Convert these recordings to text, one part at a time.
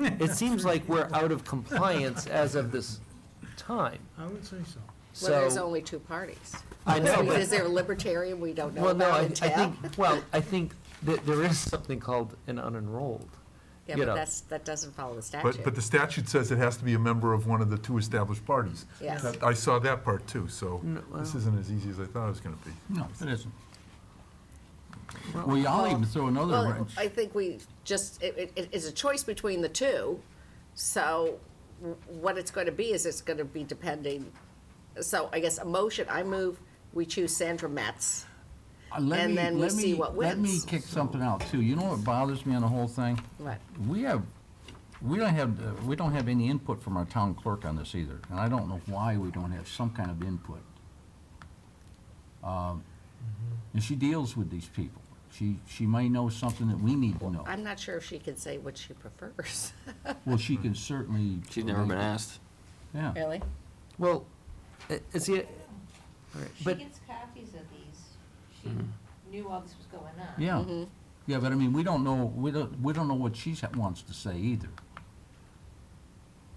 it seems like we're out of compliance as of this time, I would say so. so. Well, there's only two parties. I know, but- Is there a libertarian we don't know Well, no, I, about I in town? think, well, I think that there is something called an unenrolled. Yeah, you but know. that's, that doesn't follow the statute. But, but the statute says it has to be a member of one of the two established parties. Yes. That- I saw that part too, so No, this well- isn't as easy as I thought it was gonna be. No, it isn't. Well, y'all even throw another Well, wrench. I think we just, it, it, it's a choice between the two, so w- what it's gonna be is it's gonna be depending, so I guess a motion, I move, we choose Sandra Metz. Uh, let and me- then we let see me- what Let me wins. kick something out too. You know what bothers me on the whole thing? What? We have, we don't have, uh, we don't have any input from our town clerk on this either, and I don't know why we don't have some kind of input. Um, And she deals with these people. She, she may know something that we need to know. I'm not sure if she can say what she prefers. Well, she can certainly. She's never Mm-hmm. been asked. Yeah. Really? Well, i- is it, all right, She but, gets copies of these. She knew all this was going on. Yeah. Mm-hmm. Yeah, but I mean, we don't know, we don't, we don't know what she wants to say either.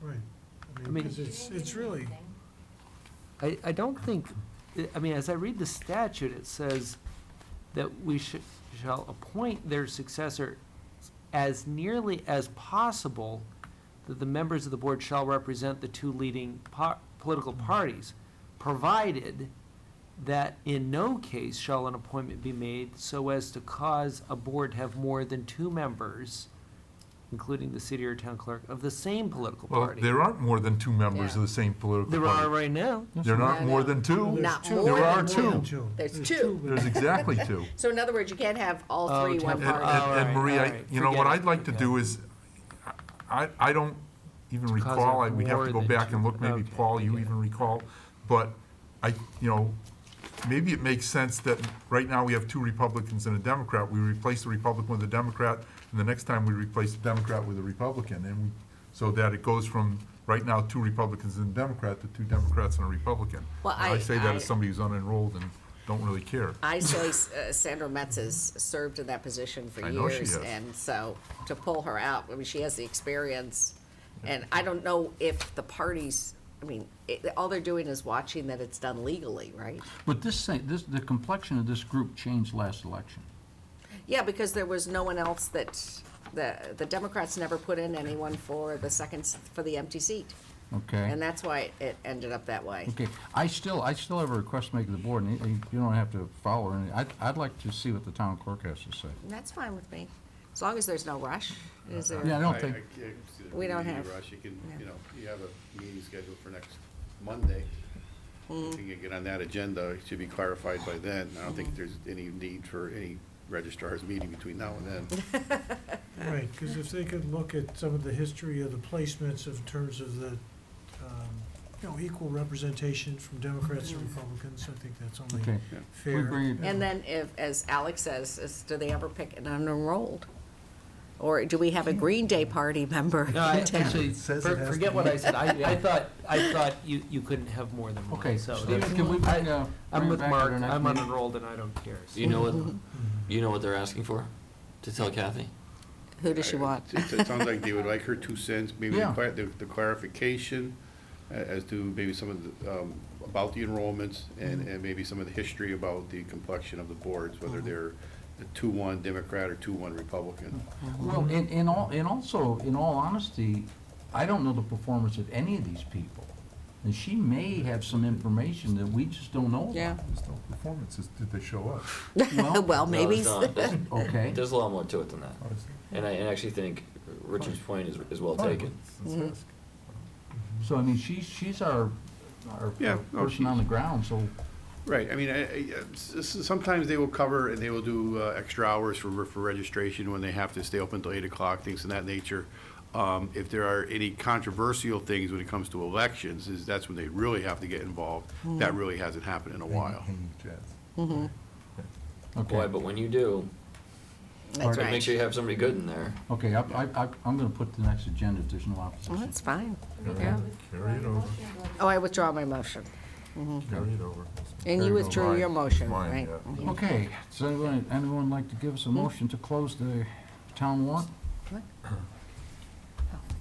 Right. I I mean, mean- because She it's, didn't it's give me really, anything. I, I don't think, I- I mean, as I read the statute, it says that we should, shall appoint their successor as nearly as possible that the members of the board shall represent the two leading par- political parties, provided that in no case shall an appointment be made so as to cause a board to have more than two members, including the city or town clerk, of the same political Well, party. there aren't more than two members of the same political There are party. right now. There I aren't more know. than two. Not two. more There are than two. There's There's two. two. There's exactly two. So in other words, you can't have all Oh, three one temp- And- party. Oh, And, and alright, Marie, I, alright, you know, forget what it, I'd like to okay. do is, I, I don't even It's 'cause recall, I- of we'd have to more go than back two- and look, maybe okay, Paul, you yeah. even recall, but I, you know, maybe it makes sense that right now we have two Republicans and a Democrat, we replace the Republican with a Democrat, and the next time we replace the Democrat with a Republican, and we, so that it goes from, right now, two Republicans and a Democrat to two Democrats and a Republican. Well, And I- I say that as I- somebody who's unenrolled and don't really care. I say uh, Sandra Metz has served in that position for I know she years, has. and so to pull her out, I mean, she has the experience, and I don't know if the parties, I mean, it, all they're doing is watching that it's done legally, right? But this thing, this, the complexion of this group changed last election. Yeah, because there was no one else that, the, the Democrats never put in anyone for the second, s- for the empty seat. Okay. And that's why it ended up that way. Okay, I still, I still have a request to make to the board, and you- you don't have to follow, and I'd, I'd like to see what the town clerk has to say. And that's fine with me, as long as there's no rush, is there? Yeah, I don't think, I can't see there We being don't any have- rush. You can, yeah. you know, you have a meeting scheduled for next Monday. Hmm. If you can get on that agenda, it should be clarified by then. I don't Hmm. think there's any need for any registrar's meeting between now and then. Right, because if they could look at some of the history of the placements in terms of the, um, you know, equal representation from Democrats and Republicans, I think that's only okay. fair. We bring it- And then if, as Alex says, is, do they ever pick an unenrolled? Or do we have a Green Day party member in No, I actually, town? says it for- has to forget be. what I said. I, I thought, I thought you, you couldn't have more than one. Okay, so Stephen, that's- can we I- bring, uh, I'm bring it with back at Mark. our next I'm meeting? unenrolled and I don't care. so- You know what, you know what they're asking for? To tell Kathy? Who does she want? It it sounds like they would like her two cents, maybe the Yeah. clar- the the clarification a- as to maybe some of the, um, about the enrollments Hmm. and, and maybe some of the history about the complexion of the boards, whether they're a two-one Democrat or two-one Republican. Hmm. Well, and, and all, and also, in all honesty, I don't know the performance of any of these people. And she may have some information that we just don't know about. There's no performances, did they show up? Well, Well, Oh, No, maybe, there's not. There's- okay. There's a lot more to it than that. Honestly. And I, and I actually think Richard's point is, is well taken. Mm-hmm. So, I mean, she's, she's our, our Yeah, our no, person on the ground, so, Right, I mean, I- I- s- s- sometimes they will cover and they will do uh, extra hours for, for registration when they have to stay open till eight o'clock, things of that nature. Um, If there are any controversial things when it comes to elections, is that's when they really have to get involved. That really hasn't happened Hmm, in a while. Boy, okay. but when you do, that's make right. sure you have somebody good in there. Okay, I, I, I- I'm gonna put the next agenda if there's no Well, opposition. that's fine. Yeah. Carry it over, Oh, I withdraw my motion. carry it over. Mm-hmm. And you withdrew your motion, Mine, right? Mm-hmm. yeah. Mm. Okay, does anyone, anyone like to give us a motion to close the town warrant?